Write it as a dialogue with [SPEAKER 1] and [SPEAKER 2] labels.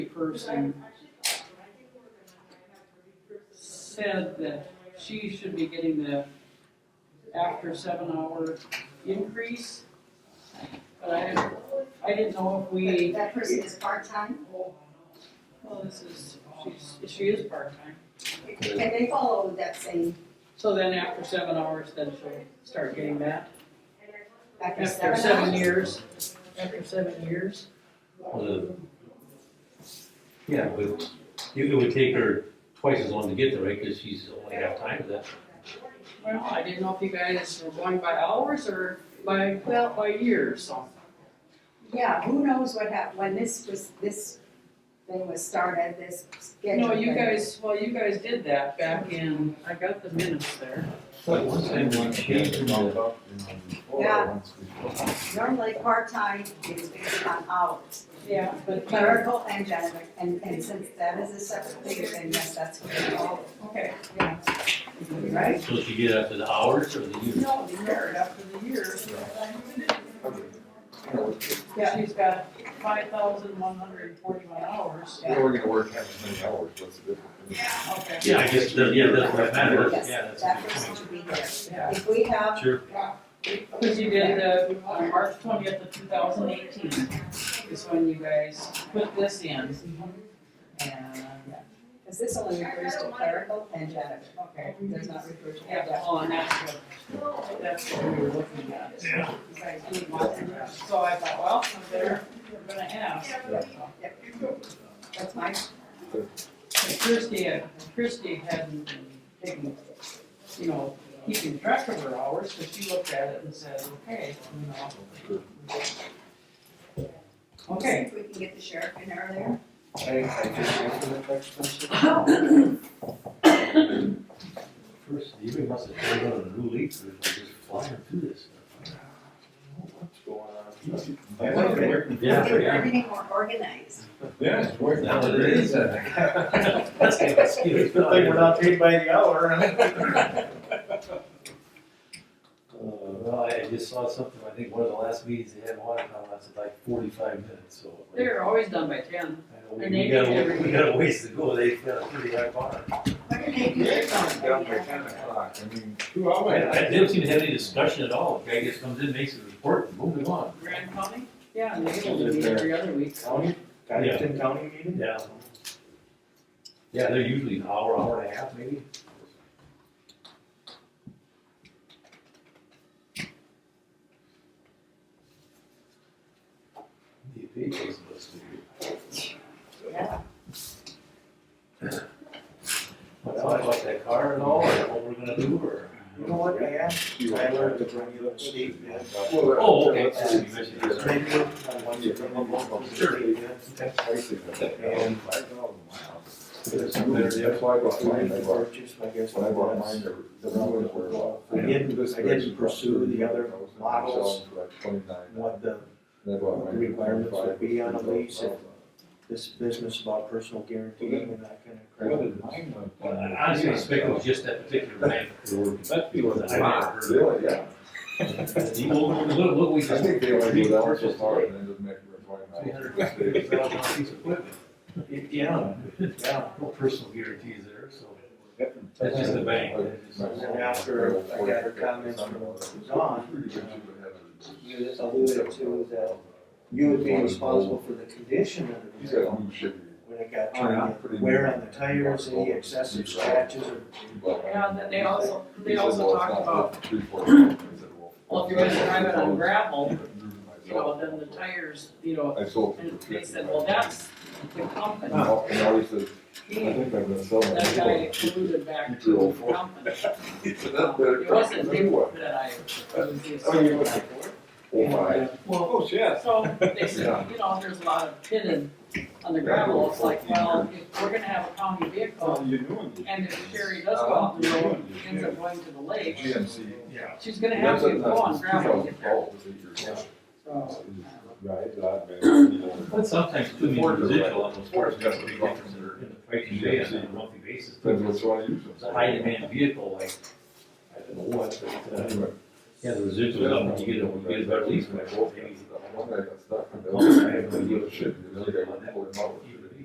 [SPEAKER 1] person said that she should be getting the after seven hour increase. But I, I didn't know if we,
[SPEAKER 2] That person is part-time.
[SPEAKER 1] well, this is, she's, she is part-time.
[SPEAKER 2] Can they follow that same,
[SPEAKER 1] So then after seven hours, then she'll start getting that.
[SPEAKER 2] back in
[SPEAKER 1] After seven years, after seven years.
[SPEAKER 3] Uh, Yeah, but you- it would take her twice as long to get there, right, because she's only half time for that.
[SPEAKER 1] Well, I didn't know if you guys were going by hours or by, well, by years, so.
[SPEAKER 2] Yeah, who knows what hap, when this was, this thing was started, this schedule.
[SPEAKER 1] No, you
[SPEAKER 2] thing.
[SPEAKER 1] guys, well, you guys did that back in, I got the minutes there.
[SPEAKER 3] But one time we changed the,
[SPEAKER 2] Normally, part-time is based on hours,
[SPEAKER 1] Yeah. But clerical,
[SPEAKER 2] clerical and janitor, and, and since that is a separate thing, then yes, that's what they follow,
[SPEAKER 1] okay,
[SPEAKER 2] yeah. Right?
[SPEAKER 3] so she get after the hours or the years?
[SPEAKER 1] no, they merit after the year. Yeah, she's got five thousand one hundred and forty-one hours.
[SPEAKER 4] We're gonna work half as many hours, what's the difference?
[SPEAKER 1] Okay.
[SPEAKER 3] Yeah, I guess, that- yeah, that's what matters, yeah.
[SPEAKER 2] Yes,
[SPEAKER 3] that's-
[SPEAKER 2] that person should be there.
[SPEAKER 1] Yeah.
[SPEAKER 2] If we have,
[SPEAKER 3] Sure,
[SPEAKER 1] Because you did the, on March twentieth of two thousand eighteen is when you guys put this in. And,
[SPEAKER 2] because this only refers to clerical and janitor,
[SPEAKER 1] okay,
[SPEAKER 2] does not refer to
[SPEAKER 1] yeah,
[SPEAKER 2] janitor.
[SPEAKER 1] well, and that's what, that's what we were looking at. Yeah. So I thought, well, I'm better, we're gonna ask.
[SPEAKER 2] That's my,
[SPEAKER 1] Christie, Christie hadn't been taking, you know, keeping track of her hours, so she looked at it and said, okay, you know. Okay,
[SPEAKER 2] if we can get the sheriff in earlier.
[SPEAKER 5] I, I just answered that question.
[SPEAKER 3] first, you even must have turned on a new leaf, or she's just flying through this.
[SPEAKER 5] What's going
[SPEAKER 4] I like it.
[SPEAKER 3] Yeah,
[SPEAKER 2] Get
[SPEAKER 3] yeah.
[SPEAKER 2] everything more organized.
[SPEAKER 4] Yeah, it's worth it.
[SPEAKER 3] Now it is. That's kind of a skill.
[SPEAKER 4] It's a good thing we're not paid by the hour,
[SPEAKER 3] Uh, Well, I I just saw something, I think one of the last meetings they had in Watertown lasted like forty-five minutes, so.
[SPEAKER 1] they're always done by ten.
[SPEAKER 3] I know we-
[SPEAKER 1] and they
[SPEAKER 3] We got,
[SPEAKER 1] did
[SPEAKER 3] a-
[SPEAKER 1] every-
[SPEAKER 3] we got a ways to go, they've got a pretty high bar.
[SPEAKER 2] What do they do?
[SPEAKER 4] Down by ten o'clock, I mean, two
[SPEAKER 3] Oh, I, I,
[SPEAKER 4] hours.
[SPEAKER 3] they don't seem to have any discussion at all, guy just comes in, makes a report, and moving on.
[SPEAKER 1] Grand County? Yeah, and they only meet every other week.
[SPEAKER 5] County, Cottington County meeting?
[SPEAKER 3] Yeah. Yeah, they're usually an hour, hour and a half maybe. The papers must be.
[SPEAKER 2] Yeah.
[SPEAKER 3] What's up, like that car and all, or what we're gonna do, or?
[SPEAKER 5] You know what, I asked you, I learned that when you look at the,
[SPEAKER 3] Oh, okay.
[SPEAKER 5] And
[SPEAKER 4] There's some better deal. That's why I bought mine, I bought,
[SPEAKER 5] purchase, I guess,
[SPEAKER 4] when I bought mine, the, the numbers were. about-
[SPEAKER 5] I didn't, I didn't pursue the other models,
[SPEAKER 4] For like twenty-nine.
[SPEAKER 5] what the,
[SPEAKER 4] And I bought mine for
[SPEAKER 5] Requirements would be on a
[SPEAKER 4] 25.
[SPEAKER 5] lease and- this business about personal guarantee and that kind of
[SPEAKER 4] What
[SPEAKER 5] crap.
[SPEAKER 4] did mine went
[SPEAKER 3] Well,
[SPEAKER 4] down?
[SPEAKER 3] I honestly expect it was just that particular bank. That was, I never
[SPEAKER 4] Really, yeah.
[SPEAKER 3] heard of. You look, look, look, we
[SPEAKER 4] I
[SPEAKER 3] just.
[SPEAKER 4] think they only go down so
[SPEAKER 3] repurchased
[SPEAKER 4] far
[SPEAKER 3] it.
[SPEAKER 4] and then just make it for
[SPEAKER 3] Three
[SPEAKER 4] twenty-nine.
[SPEAKER 3] hundred fifty thousand dollar piece of equipment.
[SPEAKER 5] Yeah, yeah.
[SPEAKER 3] No personal guarantees there, so.
[SPEAKER 5] Yep.
[SPEAKER 3] That's just the bank.
[SPEAKER 5] And then after I got her comments from Don, you just alluded to that you would be responsible for the condition of the
[SPEAKER 4] He's got
[SPEAKER 5] vehicle
[SPEAKER 4] a new ship.
[SPEAKER 5] when it got
[SPEAKER 4] Oh, yeah.
[SPEAKER 5] turned, in, wear on the tires, any excessive scratches or
[SPEAKER 1] Yeah, and then they also, they also talked about, well,
[SPEAKER 4] well,
[SPEAKER 1] if you're gonna drive it on gravel, you know, then the tires, you know,
[SPEAKER 4] I sold it
[SPEAKER 1] and
[SPEAKER 4] for
[SPEAKER 1] they said,
[SPEAKER 4] 55.
[SPEAKER 1] well, that's the company.
[SPEAKER 4] And all- and all he said, I
[SPEAKER 1] That
[SPEAKER 4] think I'm gonna sell it.
[SPEAKER 1] guy included back to the company.
[SPEAKER 4] He said, "That's better
[SPEAKER 1] It wasn't
[SPEAKER 4] than
[SPEAKER 1] him
[SPEAKER 4] you were."
[SPEAKER 1] that I, it was the
[SPEAKER 4] Oh, you
[SPEAKER 1] associate.
[SPEAKER 4] were. Oh, my.
[SPEAKER 1] Well,
[SPEAKER 4] Oh, yes.
[SPEAKER 1] so they said, you know, there's a lot of pitted on the gravel, it's like, well, if we're gonna have a county vehicle,
[SPEAKER 4] you knew him.
[SPEAKER 1] and if Sherry does go
[SPEAKER 5] Uh-huh.
[SPEAKER 1] out the road, and ends up going to the lake,
[SPEAKER 4] GMC.
[SPEAKER 1] she's gonna have to go on gravel to get there. So,
[SPEAKER 4] Right, that man.
[SPEAKER 3] But sometimes too many residual on those cars, got to be considered in the price you pay on a monthly basis.
[SPEAKER 4] Depends
[SPEAKER 3] It's
[SPEAKER 4] what's wrong with
[SPEAKER 3] a high demand vehicle, like, I don't know what, but, uh,
[SPEAKER 4] Anyway.
[SPEAKER 3] yeah, the residual, up, you get a, you get a better lease, but I hope maybe.
[SPEAKER 4] The one that got stuck in the- the dealership, the other guy went and pulled him out.